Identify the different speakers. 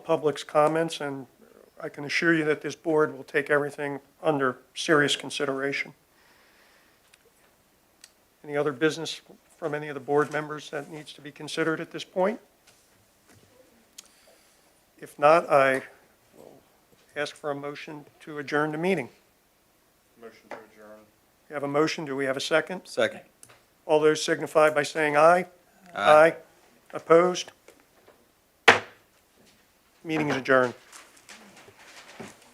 Speaker 1: public's comments, and I can assure you that this board will take everything under serious consideration. Any other business from any of the board members that needs to be considered at this point? If not, I will ask for a motion to adjourn the meeting.
Speaker 2: Motion to adjourn.
Speaker 1: We have a motion, do we have a second?
Speaker 3: Second.
Speaker 1: All those signify by saying aye. Aye. Opposed? Meeting is adjourned.